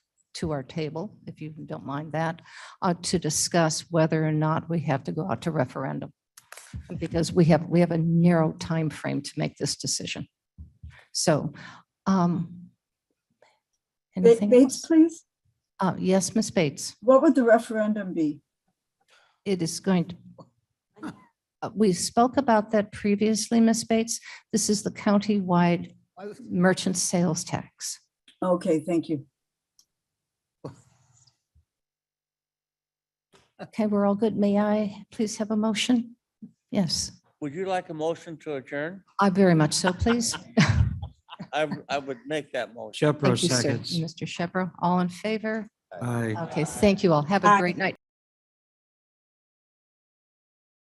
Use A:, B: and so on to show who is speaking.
A: to our table, if you don't mind that, uh, to discuss whether or not we have to go out to referendum. Because we have, we have a narrow time frame to make this decision. So, um,
B: Ba-
A: anything
B: Bates,
A: else?
B: please.
A: Uh, yes, Ms. Bates,
B: What would the referendum be?
A: it is going to, Uh, we spoke about that previously, Ms. Bates. This is the countywide merchant sales tax.
B: Okay, thank you.
A: Okay, we're all good. May I please have a motion? Yes,
C: Would you like a motion to adjourn?
A: I very much so, please.
C: I, w- I would make that motion.
D: Shepro
A: Thank you, sir.
D: seconds.
A: Mr. Shepro, all in favor?
D: Aye.
A: Okay, thank you all. Have a
B: Aye.
A: great night.